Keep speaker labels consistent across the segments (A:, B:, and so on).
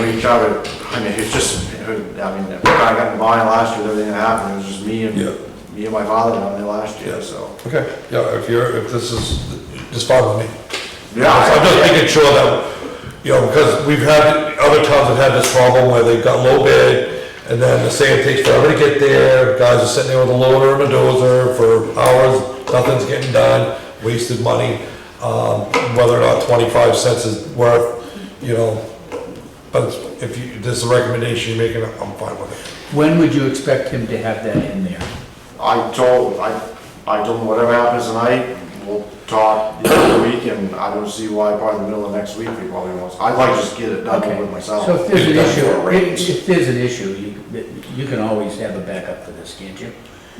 A: reach out, to- I mean, it's just, I mean, I got in line last year, everything that happened, it was just me and,
B: Yeah.
A: me and my father down there last year,
B: Yeah.
A: so.
B: Okay, yeah, if you're, if this is, just follow me.
A: Yeah,
B: So I'm just
A: I-
B: making sure that, you know, because we've had, other towns have had this problem where they've got low bid, and then the sand takes forever to get there, guys are sitting there with a loader and a dozer for hours, nothing's getting done, wasted money. Um, whether or not twenty-five cents is worth, you know, but if you, this is a recommendation you're making, I'm fine with it.
C: When would you expect him to have that in there?
A: I told, I, I told him whatever happens tonight, we'll talk the other week, and I don't see why probably the middle of next week, we probably won't. I'd like to just get it done
C: Okay.
A: with myself.
C: So if there's an
A: Get it done for a
C: issue,
A: raise.
C: if- if there's an issue, you, you can always have a backup for this, can't you?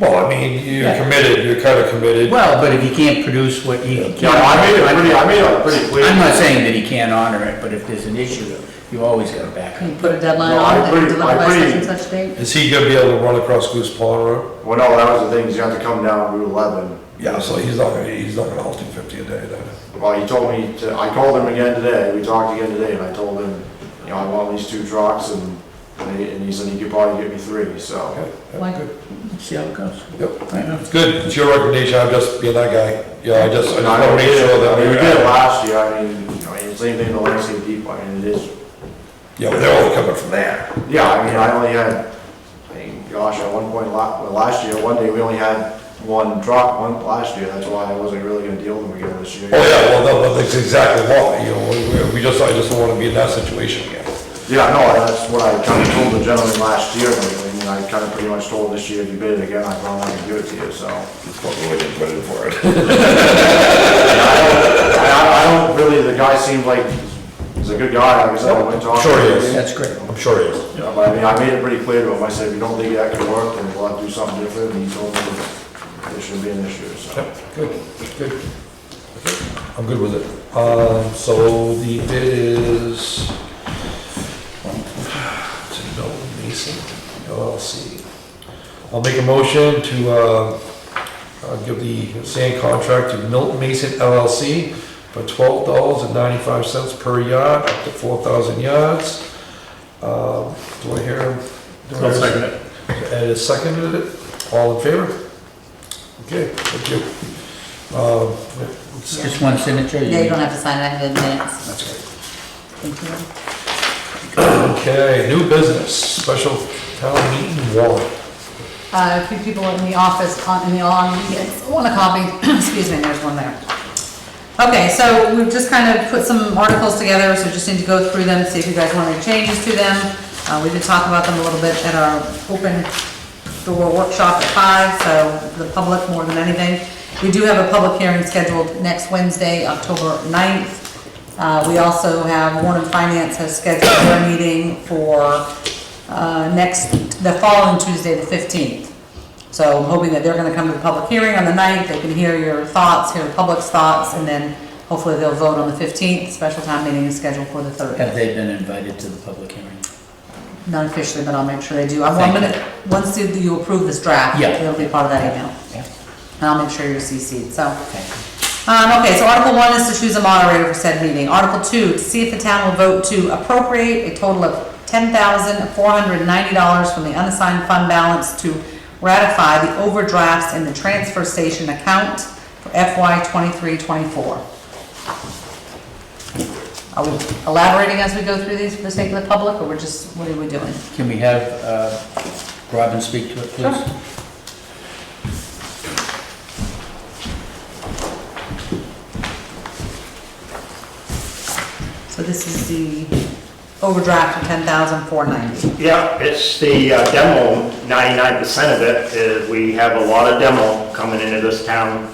B: Well, I mean, you're
C: Yeah.
B: committed, you're kind of committed.
C: Well, but if he can't produce what he can.
A: Yeah, I made it pretty, I made it pretty clear.
C: I'm not saying that he can't honor it, but if there's an issue, you always got a backup.
D: Can you put a deadline
A: No, I
D: on it,
A: agree, I
D: deliver by such
A: agree.
D: and such date?
B: Is he gonna be able to run across Goose Pond Road?
A: Well, no, that was the thing, he's got to come down Route eleven.
B: Yeah, so he's not, gonna he's not gonna haul two fifty a day then.
A: Well, he told me, to- I called him again today, we talked again today, and I told him, you know, I want these two trucks, and, and he- and he said he could probably get me three, so.
B: Okay, yeah,
D: Why-
B: good.
D: Hmm.
C: See how it goes.
B: Yep.
C: I know.
B: It's good, it's your recommendation, I'm just being that guy. Yeah, I just, I just wanna make sure that
A: I mean,
B: we
A: We did it last year, I mean, you know, it's the same thing the landscape people, I mean, it is,
B: Yeah, but they're all coming from there.
A: yeah, I mean, I only had, I mean, gosh, at one point, la, well, last year, one day, we only had one truck, one, last year, that's why I wasn't really gonna deal with them again this year.
B: Oh, yeah, well, no, but that's exactly what, you know, we- we, we just, I just don't wanna be in that situation again.
A: Yeah, no, that's what I kind of told the gentleman last year, and everything, and I kind of pretty much told this year, if you bid it again, I'm not gonna give it to you, so.
B: That's what we didn't put in for it.
A: I, I don't really, the guy seemed like, he's a good guy, like I said, I went and talked to
B: Sure
A: him.
B: he is.
C: That's great.
B: I'm sure he is.
A: Yeah, But I mean, I made it pretty clear to him, I said, if you don't think that could work, then we'll have to do something different, and he told me that it shouldn't be an issue, so.
B: Good, good. I'm good with it. Um, so the bid is, to Bill Mason LLC. I'll make a motion to, uh, uh, give the sand contract to Milton Mason LLC for twelve dollars and ninety-five cents per yard, up to four thousand yards. Um, do I hear? I'll second it. Ed has seconded it. All in favor? Okay, thank you. Um, it's-
C: Just one signature?
D: Yeah, you
C: need-
D: don't have to sign it, I have it in minutes.
C: That's right.
D: Thank you.
B: Okay, new business, special town meeting warrant.
D: Uh, a few people in the office, con- in the on, want a copy, excuse me, there's one there. Okay, so we've just kind of put some articles together, so just need to go through them, see if you guys want any changes to them. Uh, we did talk about them a little bit at our open door workshop at five, so the public more than anything. We do have a public hearing scheduled next Wednesday, October 9th. Uh, we also have, Warren Finance has scheduled their meeting for, uh, next, the following Tuesday, the fifteenth. So I'm hoping that they're gonna come to the public hearing on the 9th. they can hear your thoughts, hear the public's thoughts, and then hopefully they'll vote on the fifteenth, special time meeting is scheduled for the third.
C: Have they been invited to the public hearing?
D: Not officially, but I'll make sure they do, I'm, I'm
C: Thank you.
D: gonna, once you- you approve this draft,
C: Yeah.
D: it'll be part of that email,
C: Yeah.
D: and I'll make sure you're CC'd, so.
C: Thank you.
D: Um, okay, so Article one is to choose a moderator for said meeting. Article two, to see if the town will vote to appropriate a total of ten thousand four hundred ninety dollars from the unassigned fund balance to ratify the overdrafts in the transfer station account for FY twenty-three, twenty-four. Are we elaborating as we go through these for the sake of the public, or we're just, what are we doing?
C: Can we have uh, Robin speak to it, please?
D: Sure. So this is the overdraft of ten thousand four ninety.
E: Yeah, it's the uh, demo, 99% of it is, we have a lot of demo coming into this town.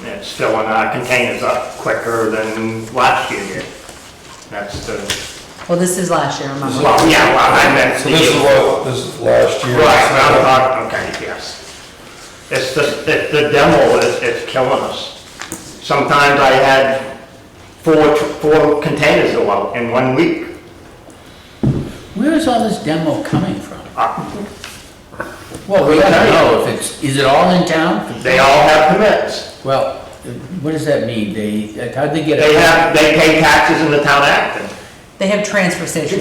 E: And It's filling our containers up quicker than last year did. That's the,
D: Well, this is last year, remember?
E: well, yeah, well, I meant
B: So
E: the.
B: this is what, this is last year.
E: Right, well, uh, okay, yes. It's the, it- the demo is, is killing us. Sometimes I had four, tr- four containers go out in one week.
C: Where is all this demo coming from?
E: Uh,
C: Ah. Well, we gotta know if it's, is it all in town?
E: They all have permits.
C: Well, what does that mean? They, how'd they get? it?
E: They have, they pay taxes in the town of Acton.
D: They have transfer stations.